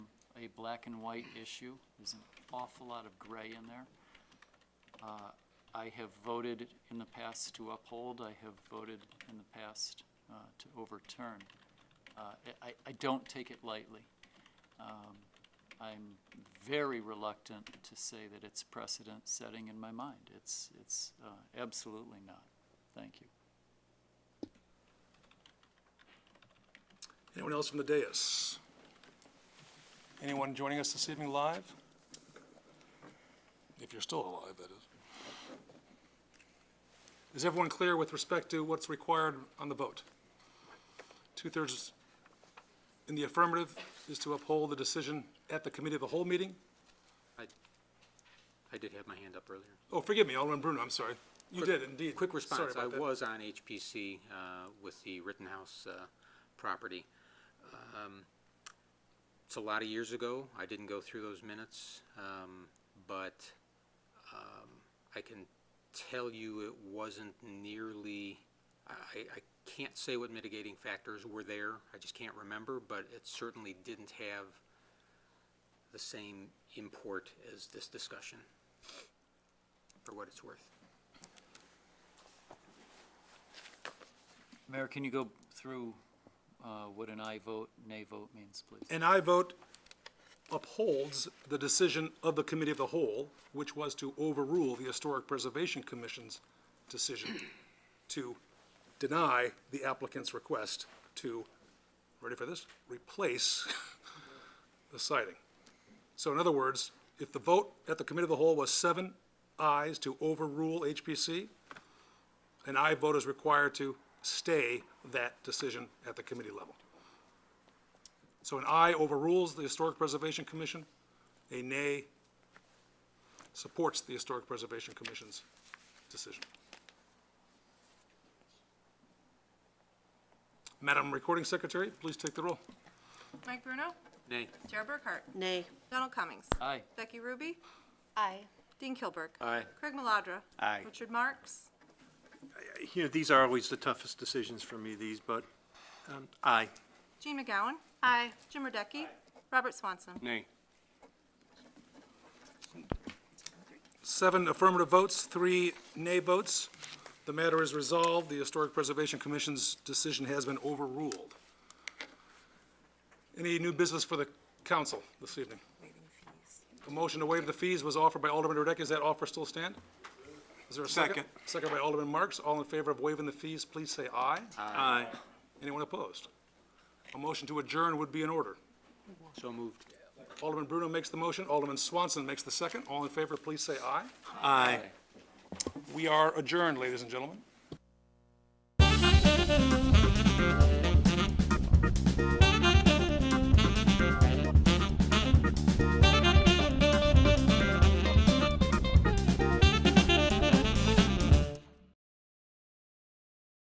a black and white issue. There's an awful lot of gray in there. Uh, I have voted in the past to uphold, I have voted in the past uh, to overturn. Uh, I- I, I don't take it lightly. Um, I'm very reluctant to say that it's precedent-setting in my mind. It's, it's uh, absolutely not. Thank you. Anyone else from the dais? Anyone joining us this evening live? If you're still alive, that is. Is everyone clear with respect to what's required on the vote? Two-thirds in the affirmative is to uphold the decision at the committee of the whole meeting? I, I did have my hand up earlier. Oh, forgive me, Alderman Bruno, I'm sorry. You did indeed. Quick Sorry response, about I that. was on HPC uh, with the Rittenhouse uh, property. Um, It's a lot of years ago, I didn't go through those minutes, um, but um, I can tell you it wasn't nearly, I, I- I can't say what mitigating factors were there, I just can't remember, but it certainly didn't have the same import as this discussion, for what it's worth. Mayor, can you go through uh, what an aye vote, nay vote means, please? And I vote upholds the decision of the committee of the whole, which was to overrule the Historic Preservation Commission's decision to deny the applicant's request to, ready for this, replace the siding. So in other words, if the vote at the committee of the whole was seven ayes to overrule HPC, an aye vote is required to stay that decision at the committee level. So an aye overrules the Historic Preservation Commission, a nay supports the Historic Preservation Commission's decision. Madam Recording Secretary, please take the roll. Mike Bruno, Nay. Jared Burkhart, Nay. Donald Cummings, Aye. Becky Ruby, Aye. Dean Kilburg. Aye. Craig Maladra. Aye. Richard Marks, You know, these are always the toughest decisions for me, these, but um, aye. Gene McGowan. Aye. Jim Radecki, Robert Swanson. Nay. Seven affirmative votes, three nay votes. The matter is resolved. The Historic Preservation Commission's decision has been overruled. Any new business for the council this evening? A motion to waive the fees was offered by Alderman Radecki. Does that offer still stand? Is there a second? Second by Alderman Marks. All in favor of waiving the fees, please say aye. Aye. Anyone opposed? A motion to adjourn would be in order. So moved. Alderman Bruno makes the motion. Alderman Swanson makes the second. All in favor, please say aye. Aye. We are adjourned, ladies and gentlemen.